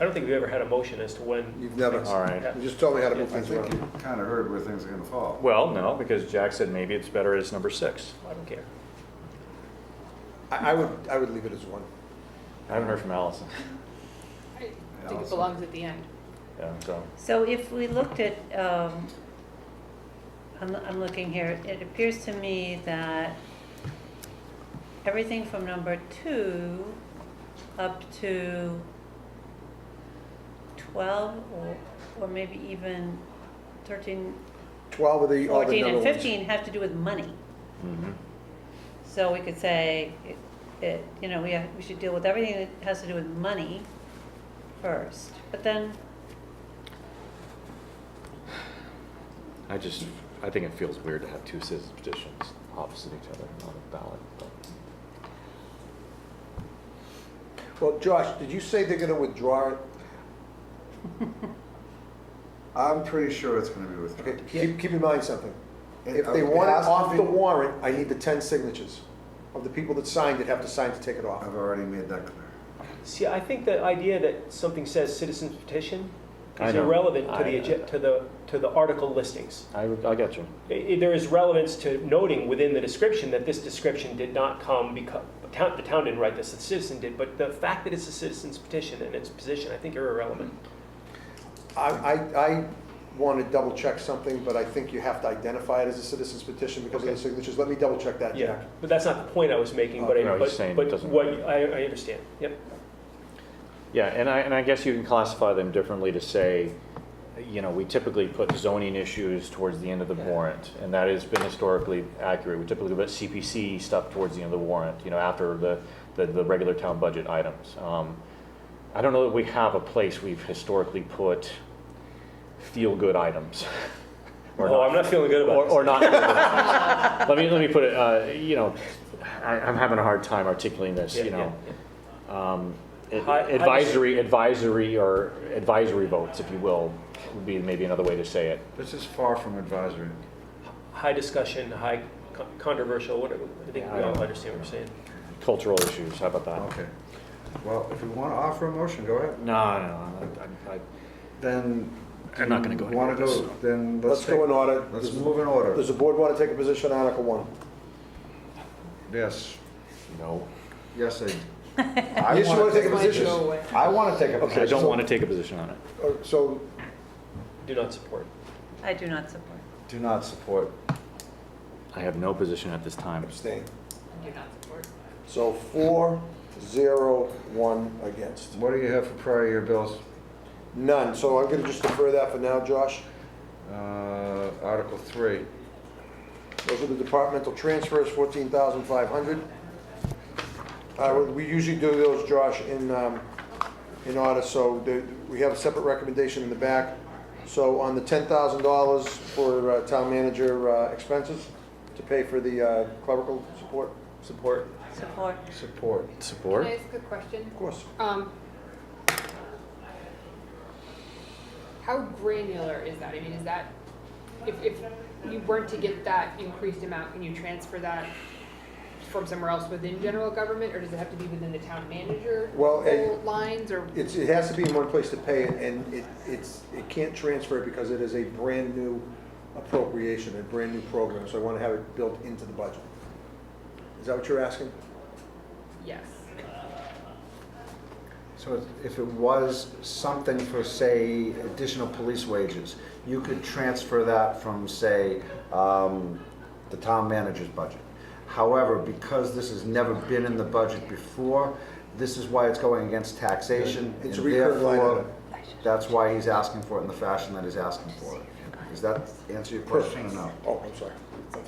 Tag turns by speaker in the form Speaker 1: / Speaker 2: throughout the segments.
Speaker 1: I don't think we've ever had a motion as to when.
Speaker 2: You've never,
Speaker 3: All right.
Speaker 2: you just told me how to move
Speaker 4: I
Speaker 2: things
Speaker 4: think
Speaker 2: around.
Speaker 4: you kind of heard where things are going to fall.
Speaker 3: Well, no, because Jack said maybe it's better as number six.
Speaker 1: I don't care.
Speaker 2: I, I would, I would leave it as one.
Speaker 3: I haven't heard from Allison.
Speaker 5: I think
Speaker 4: Allison.
Speaker 5: it belongs at the end.
Speaker 3: Yeah, so,
Speaker 6: So if we looked at, um, I'm, I'm looking here, it appears to me that everything from number two up to twelve or, or maybe even thirteen,
Speaker 2: Twelve of the, all the
Speaker 6: fourteen
Speaker 2: number
Speaker 6: and
Speaker 2: ones.
Speaker 6: fifteen have to do with money.
Speaker 3: mhm.
Speaker 6: So we could say, it- it, you know, we, have- we should deal with everything that has to do with money first, but then
Speaker 3: I just, I think it feels weird to have two citizens petitions opposite each other on a ballot. but-
Speaker 2: Well, Josh, did you say they're gonna withdraw it?
Speaker 4: I'm pretty sure it's going to be
Speaker 2: Okay,
Speaker 4: withdrawn.
Speaker 2: keep, keep in mind something.
Speaker 4: It-
Speaker 2: If they
Speaker 4: it
Speaker 2: want it
Speaker 4: has to
Speaker 2: off the
Speaker 4: be-
Speaker 2: warrant, I need the ten signatures of the people that signed it have to sign to take it off.
Speaker 4: I've already made that clear.
Speaker 1: See, I think the idea that something says citizens petition
Speaker 3: I
Speaker 1: is
Speaker 3: know.
Speaker 1: irrelevant to
Speaker 3: I-
Speaker 1: the, agen- to the, to the article listings.
Speaker 3: I, would- I got you.
Speaker 1: I- I- There is relevance to noting within the description that this description did not come because, the town didn't write this, the citizen did, but the fact that it's a citizen's petition and its position, I think are irrelevant.
Speaker 2: I, I, I want to double check something, but I think you have to identify it as a citizen's petition because of the
Speaker 1: Okay.
Speaker 2: signatures. Let me double check that,
Speaker 1: Yeah,
Speaker 2: Jack.
Speaker 1: but that's not the point I was making, but
Speaker 3: Oh, no,
Speaker 1: I,
Speaker 3: he's saying
Speaker 1: but,
Speaker 3: it
Speaker 1: but
Speaker 3: doesn't-
Speaker 1: what, I, I understand, yep.
Speaker 3: Yeah, and I, and I guess you can classify them differently to say, you know, we typically put zoning issues towards the end of the warrant, and that has been historically accurate. We typically put CPC stuff towards the end of the warrant, you know, after the, the, the regular town budget items. Um, I don't know that we have a place we've historically put feel-good items. or
Speaker 1: Oh, I'm not feeling good
Speaker 3: or,
Speaker 1: about
Speaker 3: or
Speaker 1: this.
Speaker 3: not. let me let me put it. Uh, you know, I, I'm having a hard time articulating this.
Speaker 1: Yeah,
Speaker 3: you know, um, ad-
Speaker 1: Hi- hi-
Speaker 3: advisory, advisory, or advisory votes, if you will, would be maybe another way to say it.
Speaker 4: This is far from advisory.
Speaker 1: High discussion, high con- controversial, whatever, I think
Speaker 3: Yeah,
Speaker 1: we
Speaker 3: I
Speaker 1: all
Speaker 3: don't-
Speaker 1: understand what you're saying.
Speaker 3: Cultural issues. How about that?
Speaker 4: Okay. Well, if you want to offer a motion, go ahead.
Speaker 3: Oh. No, no, I, I, I,
Speaker 4: Then.
Speaker 3: I'm not gonna go anywhere
Speaker 4: Want to
Speaker 3: with
Speaker 4: go, then let's
Speaker 2: Let's
Speaker 4: take.
Speaker 2: go in order.
Speaker 4: Let's
Speaker 2: Does-
Speaker 4: move in order.
Speaker 2: Does the board want to take a position on Article One?
Speaker 4: Yes.
Speaker 3: no.
Speaker 4: Yes, I.
Speaker 2: Yes, you wanna take a
Speaker 5: Might
Speaker 2: position?
Speaker 5: go away.
Speaker 4: I want to take a
Speaker 3: I
Speaker 4: position.
Speaker 3: don't
Speaker 2: so-
Speaker 3: want to take a position on it.
Speaker 2: Uh, So,
Speaker 1: Do not support.
Speaker 6: I do not support.
Speaker 4: Do not support.
Speaker 3: I have no position at this time.
Speaker 2: abstain.
Speaker 5: I do not support.
Speaker 2: So four, zero, one against.
Speaker 4: What do you have for prior year bills?
Speaker 2: None, so I'm going to just defer that for now, Josh.
Speaker 4: Uh, Article three.
Speaker 2: Those are the departmental transfers, 14,500. Uh, We we usually do those, Josh, in, um, in order, so the- we have a separate recommendation in the back. So on the $10,000 for uh, town manager uh, expenses to pay for the uh, clerical support,
Speaker 1: Support.
Speaker 6: Support.
Speaker 4: Support.
Speaker 5: Can
Speaker 3: Support.
Speaker 5: I ask a question?
Speaker 2: of course.
Speaker 5: Um, how granular is that? I mean, is that, if, if you weren't to get that increased amount, can you transfer that from somewhere else within general government, or does it have to be within the town manager?
Speaker 2: Well, eh,
Speaker 5: goal Lines, or,
Speaker 2: It's, it has to be in one place to pay it, and it, it's, it can't transfer because it is a brand-new appropriation, a brand-new program, so I want to have it built into the budget. Is that what you're asking?
Speaker 5: yes.
Speaker 4: So if- if it was something for, say, additional police wages, you could transfer that from, say, um, the town manager's budget. However, because this has never been in the budget before, this is why it's going against taxation.
Speaker 2: It's a
Speaker 4: and
Speaker 2: recurring line
Speaker 4: therefore,
Speaker 2: item.
Speaker 4: That's why he's asking for it in the fashion that he's asking for it. Does that answer your question or no?
Speaker 2: Oh, I'm sorry.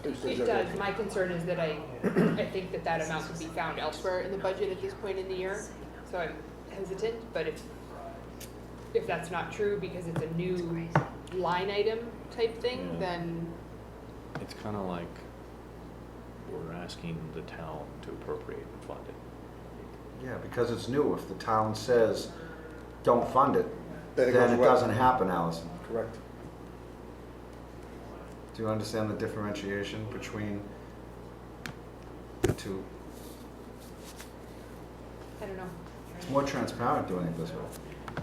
Speaker 5: It does, my concern is that I, I think that that amount could be found elsewhere in the budget at this point in the year, so I'm hesitant, but if, if that's not true, because it's a new line item type
Speaker 3: Yeah.
Speaker 5: thing, then,
Speaker 3: It's kind of like we're asking the town to appropriate and fund it.
Speaker 4: Yeah, because it's new. If the town says, don't fund it,
Speaker 2: Then
Speaker 4: then
Speaker 2: it
Speaker 4: it
Speaker 2: goes away.
Speaker 4: doesn't happen, Allison.
Speaker 2: Correct.
Speaker 4: Do you understand the differentiation between the two?
Speaker 5: I don't know.
Speaker 4: It's more transparent doing it this way.